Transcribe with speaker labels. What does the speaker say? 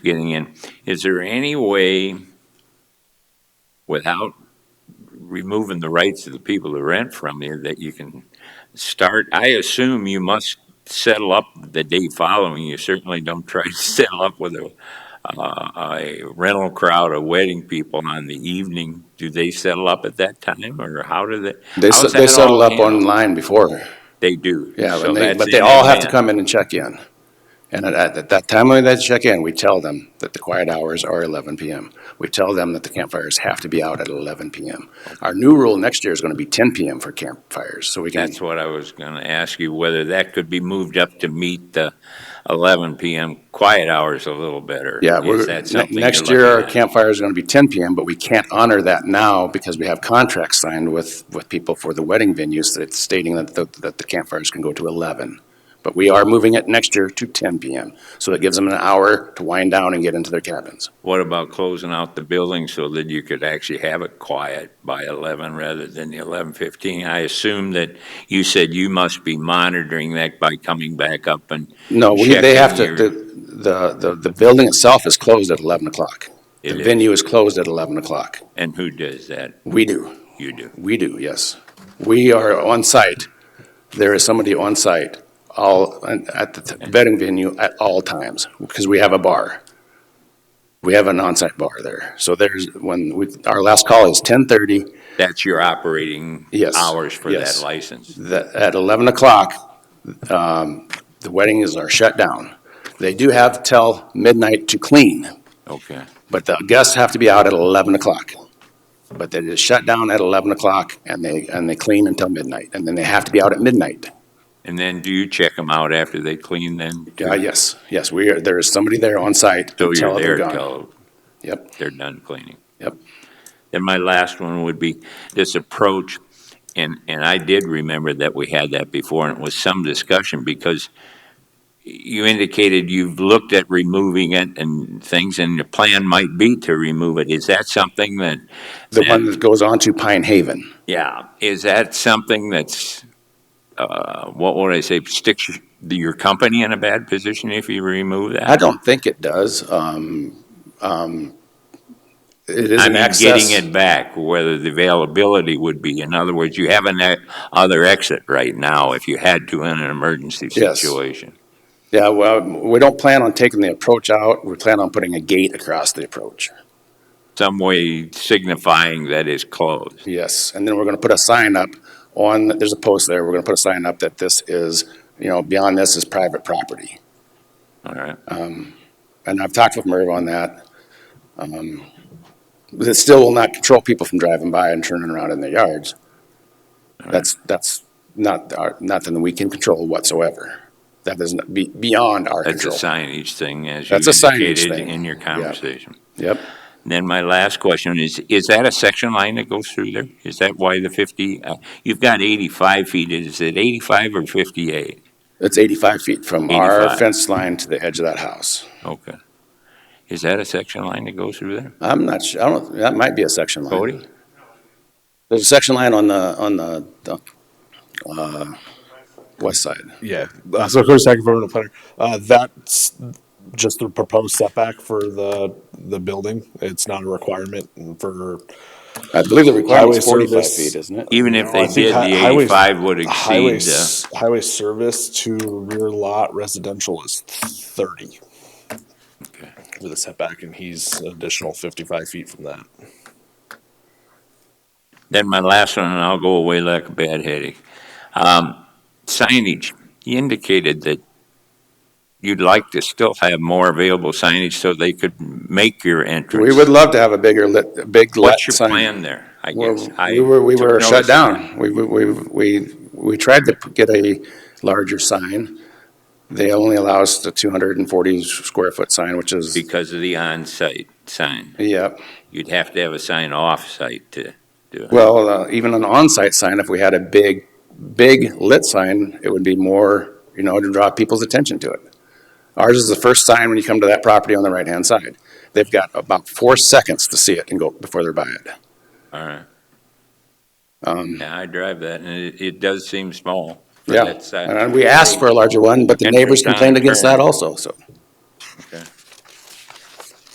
Speaker 1: getting in. Is there any way, without removing the rights of the people who rent from you, that you can start? I assume you must settle up the day following. You certainly don't try to settle up with a, uh, a rental crowd of wedding people on the evening. Do they settle up at that time, or how do they?
Speaker 2: They,
Speaker 1: how's
Speaker 2: s-
Speaker 1: that all
Speaker 2: they settle up
Speaker 1: handled?
Speaker 2: online before,
Speaker 1: They do.
Speaker 2: yeah,
Speaker 1: So
Speaker 2: but they,
Speaker 1: that's
Speaker 2: but they
Speaker 1: in
Speaker 2: all have to
Speaker 1: advance.
Speaker 2: come in and check in. And at- at, at that time when they check in, we tell them that the quiet hours are eleven PM. We tell them that the campfires have to be out at eleven PM. Our new rule next year is gonna be ten PM for campfires, so we can,
Speaker 1: That's what I was going to ask you, whether that could be moved up to meet the 11 PM quiet hours a little better.
Speaker 2: yeah,
Speaker 1: Is
Speaker 2: we're,
Speaker 1: that
Speaker 2: ne-
Speaker 1: something you're
Speaker 2: next year our
Speaker 1: looking at?
Speaker 2: campfire is gonna be ten PM, but we can't honor that now because we have contracts signed with, with people for the wedding venues that's stating that, the- that the campfires can go to eleven. But we are moving it next year to ten PM, so it gives them an hour to wind down and get into their cabins.
Speaker 1: What about closing out the building so that you could actually have it quiet by 11 rather than the 11:15? I assume that you said you must be monitoring that by coming back up and
Speaker 2: No, we, they have to,
Speaker 1: checking
Speaker 2: the, the, the- the building itself is closed at 11 o'clock.
Speaker 1: It
Speaker 2: The
Speaker 1: is.
Speaker 2: venue is closed at 11 o'clock.
Speaker 1: and who does that?
Speaker 2: We do,
Speaker 1: You do.
Speaker 2: we do, yes. We are on site. There is somebody on site all, at the betting venue at all times, because we have a bar. We have an on-site bar there. So there's, when, we, our last call is 10:30.
Speaker 1: That's your operating
Speaker 2: Yes,
Speaker 1: hours for that
Speaker 2: yes.
Speaker 1: license.
Speaker 2: that at 11 o'clock, um, the weddings are shut down. They do have till midnight to clean,
Speaker 1: Okay.
Speaker 2: but the guests have to be out at 11 o'clock. But they just shut down at 11 o'clock and they, and they clean until midnight, and then they have to be out at midnight.
Speaker 1: And then do you check them out after they clean then?
Speaker 2: Yeah, yes, yes, we are, there is somebody there on site
Speaker 1: So
Speaker 2: until
Speaker 1: Oh, you're
Speaker 2: they're
Speaker 1: there
Speaker 2: gone.
Speaker 1: till
Speaker 2: Yep,
Speaker 1: they're done cleaning.
Speaker 2: Yep.
Speaker 1: Then my last one would be this approach, and, and I did remember that we had that before, and it was some discussion, because you indicated you've looked at removing it and things, and the plan might be to remove it. Is that something that,
Speaker 2: the one that goes on to Pine Haven.
Speaker 1: yeah, is that something that's, uh, what would I say, sticks your- your company in a bad position if you remove that?
Speaker 2: I don't think it does, um, um, it is
Speaker 1: I
Speaker 2: an
Speaker 1: mean,
Speaker 2: access.
Speaker 1: getting it back, whether the availability would be. In other words, you have an e- other exit right now if you had to in an emergency
Speaker 2: Yes.
Speaker 1: situation.
Speaker 2: Yeah, well, we don't plan on taking the approach out. We plan on putting a gate across the approach.
Speaker 1: Some way signifying that it's closed.
Speaker 2: Yes, and then we're going to put a sign up on, there's a post there. We're going to put a sign up that this is, you know, beyond this is private property.
Speaker 1: All right.
Speaker 2: And I've talked with Merv on that. Um, but It still will not control people from driving by and turning around in their yards. That's, that's not, our- nothing we can control whatsoever. That is not- be- beyond our
Speaker 1: That's a
Speaker 2: control.
Speaker 1: signage thing, as you
Speaker 2: That's a signage
Speaker 1: indicated
Speaker 2: thing.
Speaker 1: in your conversation.
Speaker 2: Yep.
Speaker 1: Then my last question is, is that a section line that goes through there? Is that why the 50, uh, you've got 85 feet, is it 85 or 58?
Speaker 2: It's 85 feet from our
Speaker 1: 85.
Speaker 2: fence line to the edge of that house.
Speaker 1: Okay. Is that a section line that goes through there?
Speaker 2: I'm not sure, I don't, that might be a section line.
Speaker 1: Cody?
Speaker 2: There's a section line on the, on the, the, uh, west side.
Speaker 3: Yeah. Uh, so, Cody Stack, environmental planner. Uh, that's just the proposed setback for the the building. It's not a requirement for.
Speaker 2: I believe the requirement is
Speaker 3: Highway
Speaker 2: forty-five
Speaker 3: service.
Speaker 2: feet, isn't it?
Speaker 1: Even if
Speaker 3: No,
Speaker 1: they
Speaker 3: I think
Speaker 1: did,
Speaker 3: hi- uh,
Speaker 1: the
Speaker 3: highways-
Speaker 1: 85 would
Speaker 3: Highway,
Speaker 1: exceed uh, the...
Speaker 3: s- highway service to rear lot residential is 30 with a setback, and he's an additional 55 feet from that.
Speaker 1: Then my last one, and I'll go away like a bad headache. Um, signage, you indicated that you'd like to still have more available signage so they could make your entrance.
Speaker 2: We would love to have a bigger lit, a big lit
Speaker 1: What's your
Speaker 2: sign.
Speaker 1: plan there, I
Speaker 2: Well,
Speaker 1: guess? I
Speaker 2: We were, we
Speaker 1: took
Speaker 2: were shut
Speaker 1: notice-
Speaker 2: down. We, we, we, we we tried to get a larger sign. They only allow us the two hundred and forty square foot sign, which is,
Speaker 1: Because of the on-site sign.
Speaker 2: yep.
Speaker 1: You'd have to have a sign off-site to do it.
Speaker 2: Well, uh, even an on-site sign, if we had a big, big lit sign, it would be more, you know, to draw people's attention to it. Ours is the first sign when you come to that property on the right-hand side. They've got about four seconds to see it and go before they're by it.
Speaker 1: All right.
Speaker 2: Um,
Speaker 1: Yeah, I drive that, and it, it does seem small. for
Speaker 2: Yeah,
Speaker 1: that size.
Speaker 2: and we asked for a larger one, but the
Speaker 1: And for
Speaker 2: neighbors complained
Speaker 1: sign
Speaker 2: against that
Speaker 1: turn.
Speaker 2: also, so.